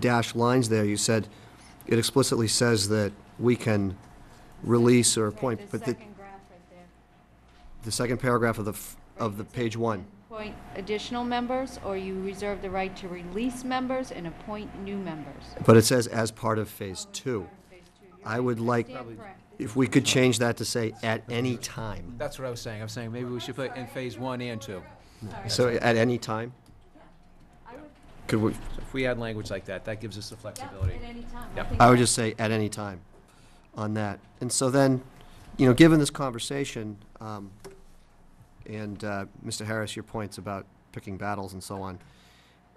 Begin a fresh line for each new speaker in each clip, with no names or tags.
dash lines there, you said, it explicitly says that we can release or appoint,
The
but the,
second graph right there.
the second paragraph of the, f- of the page one.
Appoint additional members, or you reserve the right to release members and appoint new members.
But it says as part of phase two.
Phase two. You're
I
right.
would like,
Stand corrected.
if we could change that to say at any time.
That's what I was saying. I'm saying maybe we should put in phase one and two.
So at any time? Could we,
So if we add language like that, that gives us the flexibility.
At any time.
Yep.
think
I would just say at any time on that. And so then, you know, given this conversation, um, and, uh, Mr. Harris, your points about picking battles and so on,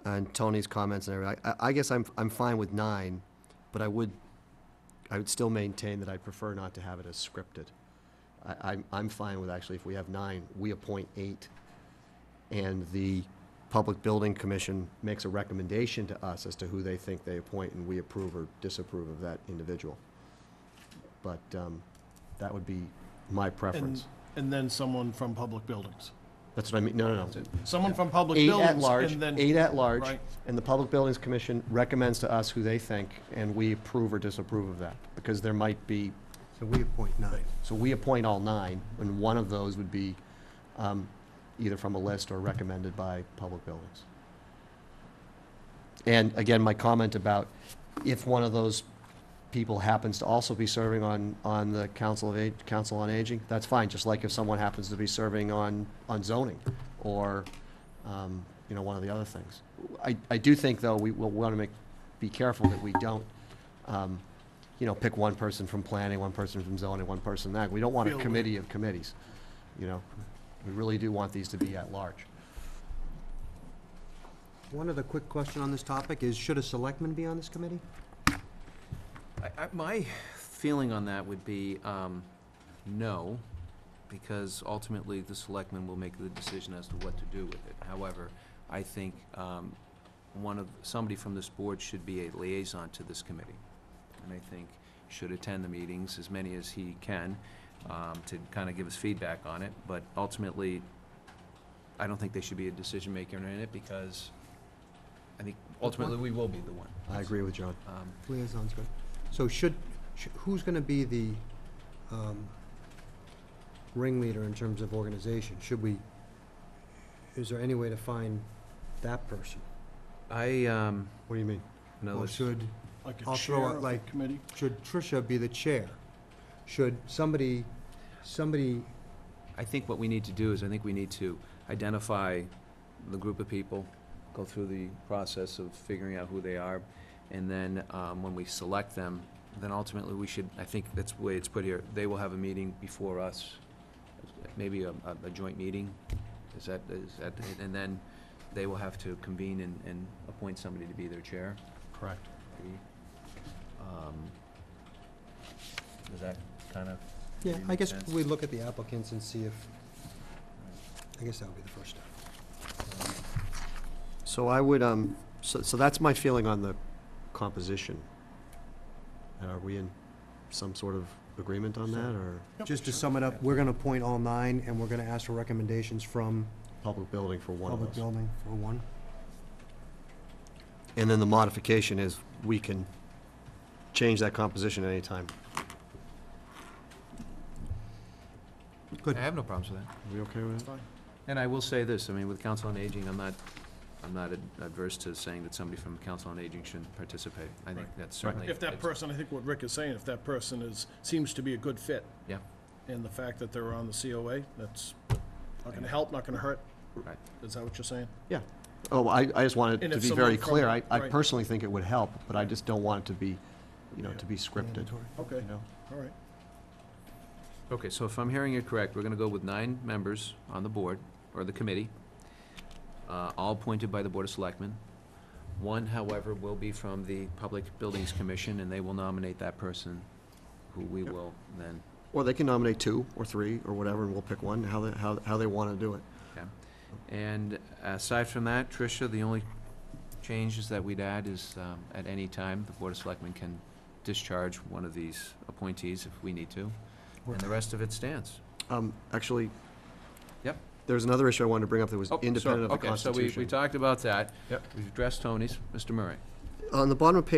and Tony's comments and everything, I, I guess I'm, I'm fine with nine, but I would, I would still maintain that I prefer not to have it as scripted. I, I'm, I'm fine with actually, if we have nine, we appoint eight, and the Public Building Commission makes a recommendation to us as to who they think they appoint, and we approve or disapprove of that individual. But um, that would be my
And,
preference.
and then someone from public buildings.
That's what I mean, no, no, no.
Someone from public
Eight
buildings.
at large,
and then-
eight at large,
Right.
and the Public Buildings Commission recommends to us who they think, and we approve or disapprove of that, because there might be,
So we appoint nine.
so we appoint all nine, and one of those would be um, either from a list or recommended by Public Buildings. And again, my comment about if one of those people happens to also be serving on, on the Council of Ag, Council on Aging, that's fine, just like if someone happens to be serving on, on zoning, or, um, you know, one of the other things. I, I do think, though, we will want to make, be careful that we don't, um, you know, pick one person from planning, one person from zoning, one person that, we don't want a
Feel-
committee of committees, you know? We really do want these to be at large.
One other quick question on this topic is, should a selectman be on this committee?
I- I- My feeling on that would be um, no, because ultimately the selectmen will make the decision as to what to do with it. However, I think um, one of, somebody from this board should be a liaison to this committee. And I think should attend the meetings, as many as he can, um, to kind of give us feedback on it. But ultimately, I don't think they should be a decision maker in it because I think ultimately we will be the one.
I agree with John.
Um,
Liaison's good. So should, sh- who's going to be the um, ringleader in terms of organization? Should we, is there any way to find that person?
I, um,
What do you mean?
know
Or
it's-
should,
Like a
I'll
chair
throw out,
of the
like-
committee.
should Tricia be the chair? Should somebody, somebody,
I think what we need to do is, I think we need to identify the group of people, go through the process of figuring out who they are, and then, um, when we select them, then ultimately we should, I think that's the way it's put here, they will have a meeting before us, maybe a, a- a joint meeting, is that, is that, and then they will have to convene and, and appoint somebody to be their chair.
Correct.
Um, Is that kind of?
yeah, I guess
Makes sense.
we look at the applicants and see if, I guess that would be the first step.
So I would, um, so, so that's my feeling on the composition. And Are we in some sort of agreement on that, or
Just to sum it up, we're gonna appoint all nine, and we're gonna ask for recommendations from
public building for one
Public
of us?
Building for one.
And then the modification is, we can change that composition at any time.
I have no problems with that.
Are we okay with
That's
that?
fine.
And I will say this, I mean, with Council on Aging, I'm not, I'm not adverse to saying that somebody from Council on Aging shouldn't participate. I think
Right.
that's certainly.
If that
it's-
person, I think what Rick is saying, if that person is, seems to be a good fit,
Yeah,
and the fact that they're on the COA, that's not gonna help, not gonna hurt,
right.
is that what you're saying?
Yeah. Oh, I, I just wanted
And
to
if
be
someone
very
from-
clear. I, I
right.
personally think it would help, but I just don't want it to be, you know, to be scripted,
Mandatory.
you
Okay,
know?
all right.
Okay, so if I'm hearing it correct, we're gonna go with nine members on the board, or the committee, uh, all appointed by the Board of Selectmen. One, however, will be from the Public Buildings Commission, and they will nominate that person, who we will then,
Or they can nominate two or three or whatever, and we'll pick one, how they, how, how they want to do it.
okay? And aside from that, Tricia, the only changes that we'd add is, um, at any time, the Board of Selectmen can discharge one of these appointees if we need to, and the rest of it stands.
Um, actually.
Yep.
There's another issue I wanted to bring up that was
Oh, sorry,
independent of the
Okay, so we, we
Constitution.
talked about that. Yep. We've addressed Tony's. Mr. Murray.
on the bottom of page